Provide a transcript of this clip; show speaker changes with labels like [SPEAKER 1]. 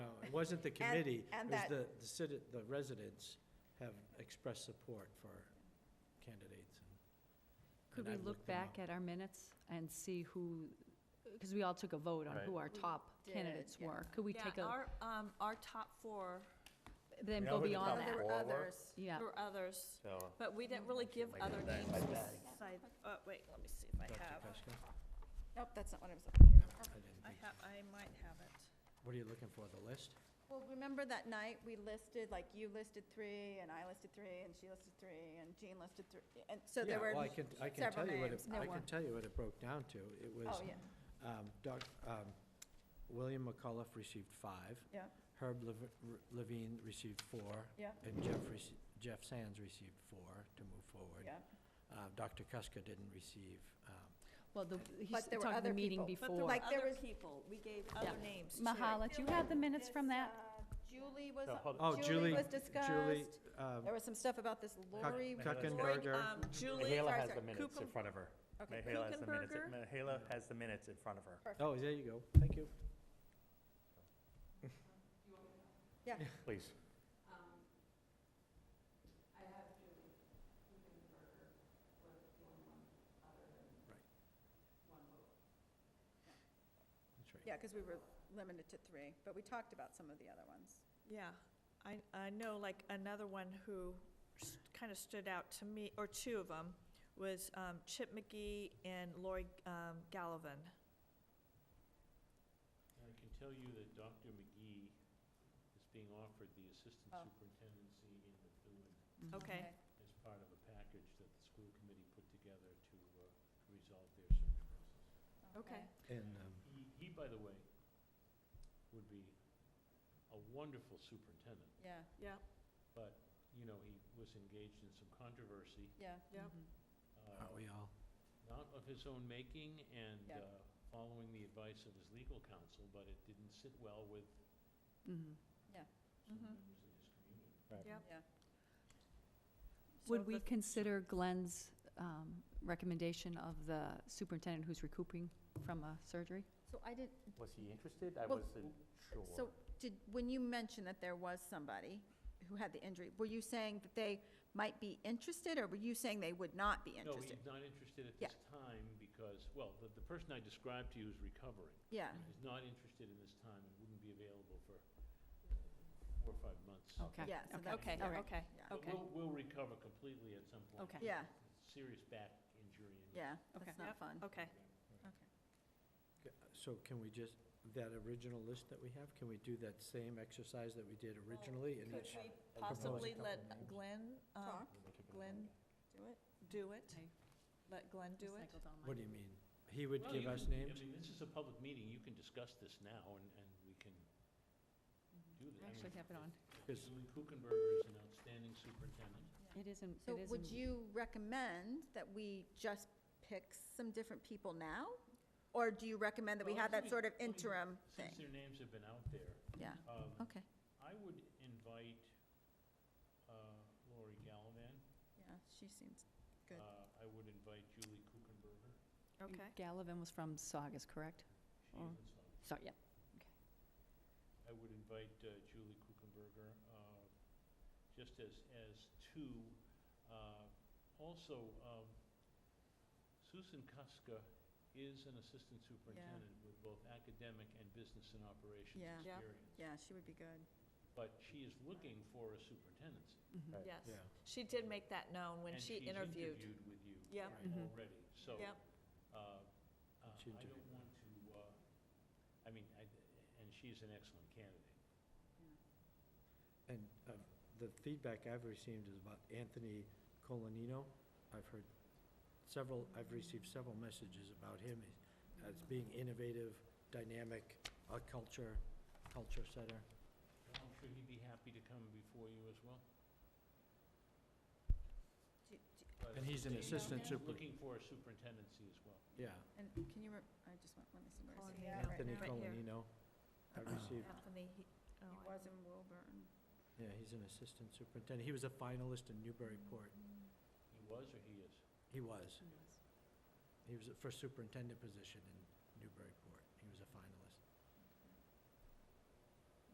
[SPEAKER 1] It wasn't the committee, it
[SPEAKER 2] and
[SPEAKER 1] was
[SPEAKER 2] that-
[SPEAKER 1] the, the citi, the residents have expressed support for candidates. and-
[SPEAKER 3] Could
[SPEAKER 1] and
[SPEAKER 3] we
[SPEAKER 1] I've
[SPEAKER 3] look
[SPEAKER 1] looked them
[SPEAKER 3] back
[SPEAKER 1] up.
[SPEAKER 3] at our minutes and see who, because we all took a vote on
[SPEAKER 4] Right.
[SPEAKER 3] who our
[SPEAKER 2] We
[SPEAKER 3] top
[SPEAKER 2] did,
[SPEAKER 3] candidates
[SPEAKER 2] yeah.
[SPEAKER 3] were? Could we take
[SPEAKER 5] Yeah,
[SPEAKER 3] a,
[SPEAKER 5] our, um, our top four,
[SPEAKER 3] then
[SPEAKER 4] Yeah,
[SPEAKER 3] go
[SPEAKER 4] with the
[SPEAKER 3] beyond
[SPEAKER 4] top
[SPEAKER 2] There
[SPEAKER 3] that?
[SPEAKER 2] were
[SPEAKER 4] Or what?
[SPEAKER 2] others.
[SPEAKER 3] Yeah,
[SPEAKER 5] were others,
[SPEAKER 4] So,
[SPEAKER 5] but we didn't really give
[SPEAKER 4] Like
[SPEAKER 5] other
[SPEAKER 4] that.
[SPEAKER 5] names
[SPEAKER 4] Like that.
[SPEAKER 5] beside, oh, wait, let me see if
[SPEAKER 1] Dr.
[SPEAKER 5] I have,
[SPEAKER 1] Pesca?
[SPEAKER 2] Nope, that's not what I was,
[SPEAKER 1] I didn't
[SPEAKER 5] I
[SPEAKER 1] think so.
[SPEAKER 5] have, I might have it.
[SPEAKER 1] What are you looking for, the list?
[SPEAKER 2] well, remember that night we listed, like you listed three and I listed three and she listed three and Jean listed three. And so there were,
[SPEAKER 1] Yeah, well, I
[SPEAKER 2] oh
[SPEAKER 1] can, I can
[SPEAKER 2] several
[SPEAKER 1] tell you what it,
[SPEAKER 2] names. Oh,
[SPEAKER 3] No
[SPEAKER 1] I can
[SPEAKER 3] one.
[SPEAKER 1] tell you what it broke down to. It was,
[SPEAKER 2] yeah,
[SPEAKER 1] um, Doc, um, William McCullough received five.
[SPEAKER 2] Yeah.
[SPEAKER 1] Herb Lev- R- Levine received four.
[SPEAKER 2] Yeah.
[SPEAKER 1] And Jeff, rece- Jeff Sands received four to move forward.
[SPEAKER 2] yeah.
[SPEAKER 1] Uh, Dr. Kuska didn't receive, um,
[SPEAKER 3] well, the, he's
[SPEAKER 2] But there were
[SPEAKER 3] talking the
[SPEAKER 2] other
[SPEAKER 3] meeting
[SPEAKER 2] people.
[SPEAKER 3] before.
[SPEAKER 2] like, there
[SPEAKER 5] Other
[SPEAKER 2] was-
[SPEAKER 5] people, we gave
[SPEAKER 3] Yeah.
[SPEAKER 5] other names too.
[SPEAKER 3] Mahala, do you have the minutes from
[SPEAKER 2] This,
[SPEAKER 3] that?
[SPEAKER 2] uh, Julie was,
[SPEAKER 4] No, hold
[SPEAKER 1] oh, Julie,
[SPEAKER 2] Julie was
[SPEAKER 1] Julie,
[SPEAKER 2] discussed.
[SPEAKER 1] um,
[SPEAKER 2] There was some stuff about this
[SPEAKER 1] Cuck-
[SPEAKER 2] Lori.
[SPEAKER 5] Lloyd,
[SPEAKER 1] Kuckenberger.
[SPEAKER 5] um, Julie,
[SPEAKER 4] Mahela
[SPEAKER 2] sorry,
[SPEAKER 4] has the
[SPEAKER 2] sorry,
[SPEAKER 4] minutes in
[SPEAKER 5] Kuchen-
[SPEAKER 4] front of her.
[SPEAKER 2] Okay,
[SPEAKER 4] Mahela has the minutes,
[SPEAKER 5] Kuchenberger?
[SPEAKER 4] Mahela has the minutes in front of her.
[SPEAKER 2] perfect.
[SPEAKER 1] Oh, there you go. Thank you.
[SPEAKER 4] Please.
[SPEAKER 1] That's right.
[SPEAKER 2] Yeah, because we were limited to three, but we talked about some of the other ones.
[SPEAKER 5] yeah, I, I know like another one who kind of stood out to me, or two of them, was um, Chip McGee and Lori um, Gallivan.
[SPEAKER 6] I can tell you that Dr. McGee is being offered the assistant
[SPEAKER 2] Oh.
[SPEAKER 6] superintendency in Methuen
[SPEAKER 2] uh,
[SPEAKER 3] Mhm.
[SPEAKER 5] Okay,
[SPEAKER 6] as part of a package that the school committee put together to uh, resolve their search process.
[SPEAKER 5] okay.
[SPEAKER 1] And, um,
[SPEAKER 6] He, he, by the way, would be a wonderful superintendent,
[SPEAKER 2] Yeah,
[SPEAKER 5] Yeah,
[SPEAKER 6] but, you know, he was engaged in some controversy,
[SPEAKER 2] yeah.
[SPEAKER 5] yeah.
[SPEAKER 6] uh,
[SPEAKER 1] aren't we all?
[SPEAKER 6] not of his own making and
[SPEAKER 2] Yeah.
[SPEAKER 6] uh, following the advice of his legal counsel, but it didn't sit well with
[SPEAKER 3] Mhm.
[SPEAKER 6] some
[SPEAKER 3] Mm-hmm.
[SPEAKER 5] Mhm.
[SPEAKER 6] members of his community.
[SPEAKER 3] Would
[SPEAKER 5] So
[SPEAKER 3] we
[SPEAKER 5] the-
[SPEAKER 3] consider Glenn's um, recommendation of the superintendent who's recouping from a surgery?
[SPEAKER 2] So I did,
[SPEAKER 4] Was he interested? I
[SPEAKER 2] Well,
[SPEAKER 4] wasn't sure.
[SPEAKER 2] so did, when you mentioned that there was somebody who had the injury, were you saying that they might be interested or were you saying they would not be
[SPEAKER 6] No,
[SPEAKER 2] interested?
[SPEAKER 6] he's not interested at
[SPEAKER 2] Yeah.
[SPEAKER 6] this time because, well, the, the person I described to you is recovering.
[SPEAKER 2] Yeah,
[SPEAKER 6] He's not interested in this time and wouldn't be available for four or five months.
[SPEAKER 3] Okay.
[SPEAKER 2] yeah, so that,
[SPEAKER 5] Okay,
[SPEAKER 3] All right.
[SPEAKER 5] okay,
[SPEAKER 2] yeah,
[SPEAKER 6] But
[SPEAKER 3] okay.
[SPEAKER 6] we'll, we'll recover completely at some point.
[SPEAKER 3] Okay.
[SPEAKER 2] Yeah.
[SPEAKER 6] Serious back injury and.
[SPEAKER 2] yeah,
[SPEAKER 3] Okay.
[SPEAKER 2] that's not
[SPEAKER 5] Yep.
[SPEAKER 2] fun.
[SPEAKER 5] okay.
[SPEAKER 1] Ca- So can we just, that original list that we have, can we do that same exercise that we did originally? and
[SPEAKER 5] Could
[SPEAKER 1] each-
[SPEAKER 5] we
[SPEAKER 1] propose a
[SPEAKER 5] possibly
[SPEAKER 1] couple
[SPEAKER 5] let
[SPEAKER 1] names.
[SPEAKER 5] Glenn, um,
[SPEAKER 2] Talk,
[SPEAKER 5] Glenn
[SPEAKER 2] do it.
[SPEAKER 5] do it?
[SPEAKER 3] I
[SPEAKER 5] Let Glenn do it?
[SPEAKER 3] recycled all mine.
[SPEAKER 1] What do you mean? He would
[SPEAKER 6] Well,
[SPEAKER 1] give
[SPEAKER 6] you
[SPEAKER 1] us
[SPEAKER 6] can-
[SPEAKER 1] names?
[SPEAKER 6] I mean, this is a public meeting, you can discuss this now and, and we can do
[SPEAKER 3] I
[SPEAKER 6] that.
[SPEAKER 3] actually have it on.
[SPEAKER 1] Because
[SPEAKER 6] Julie Kuchenberger is an outstanding superintendent.
[SPEAKER 3] It isn't,
[SPEAKER 2] So
[SPEAKER 3] it isn't.
[SPEAKER 2] would you recommend that we just pick some different people now? Or do you recommend that we
[SPEAKER 6] Well,
[SPEAKER 2] have
[SPEAKER 6] let
[SPEAKER 2] that
[SPEAKER 6] me-
[SPEAKER 2] sort of
[SPEAKER 6] let me-
[SPEAKER 2] interim thing?
[SPEAKER 6] Since their names have been out there,
[SPEAKER 2] Yeah,
[SPEAKER 6] um,
[SPEAKER 2] okay,
[SPEAKER 6] I would invite uh, Lori Gallivan.
[SPEAKER 2] yeah, she seems Good.
[SPEAKER 6] Uh, I would invite Julie Kuchenberger.
[SPEAKER 3] And
[SPEAKER 5] Okay,
[SPEAKER 3] Gallivan was from Saugus, correct?
[SPEAKER 6] She
[SPEAKER 3] Oh.
[SPEAKER 6] isn't so-
[SPEAKER 3] So, yeah.
[SPEAKER 6] I would invite uh, Julie Kuchenberger, uh, just as, as two. Uh, Also, um, Susan Kuska is an assistant superintendent with both academic and business and operations
[SPEAKER 2] Yeah.
[SPEAKER 5] Yeah.
[SPEAKER 6] experience.
[SPEAKER 2] yeah, she would be good.
[SPEAKER 6] But she is looking for a superintendency.
[SPEAKER 2] Mm-hmm.
[SPEAKER 3] Mhm.
[SPEAKER 4] Right.
[SPEAKER 5] yes.
[SPEAKER 1] Yeah.
[SPEAKER 5] She did make that known when
[SPEAKER 6] And
[SPEAKER 5] she
[SPEAKER 6] she's
[SPEAKER 5] interviewed.
[SPEAKER 6] interviewed with you
[SPEAKER 5] Yeah.
[SPEAKER 6] right,
[SPEAKER 3] Mhm.
[SPEAKER 6] already, so.
[SPEAKER 5] Yep.
[SPEAKER 6] uh, uh,
[SPEAKER 1] She
[SPEAKER 6] I
[SPEAKER 1] interviewed
[SPEAKER 6] don't want to, uh, I mean, I, and she's an excellent candidate.
[SPEAKER 1] And uh, the feedback I've received is about Anthony Colanino. I've heard several, I've received several messages about him as
[SPEAKER 2] Mm-hmm.
[SPEAKER 1] being innovative, dynamic, a culture, culture setter.
[SPEAKER 6] I'm sure he'd be happy to come before you as well.
[SPEAKER 2] Do- do-
[SPEAKER 6] but
[SPEAKER 1] And he's an
[SPEAKER 6] they-
[SPEAKER 1] assistant
[SPEAKER 6] they're
[SPEAKER 1] super-
[SPEAKER 6] Looking for a superintendency as well.
[SPEAKER 1] Yeah,
[SPEAKER 2] And can you, re- I just want, let me see, where is he?
[SPEAKER 5] Colin, yeah,
[SPEAKER 2] Yeah, right
[SPEAKER 1] Anthony
[SPEAKER 2] now.
[SPEAKER 5] Col- Right here.
[SPEAKER 1] Colanino. I've received,
[SPEAKER 5] Anthony, he, oh,
[SPEAKER 2] He
[SPEAKER 5] I
[SPEAKER 2] was
[SPEAKER 5] don't-
[SPEAKER 2] in Wilburn.
[SPEAKER 1] yeah, he's an assistant superintendent. He was a finalist in Newburyport.
[SPEAKER 6] He was or he is?
[SPEAKER 1] He was. He was for superintendent position in Newburyport.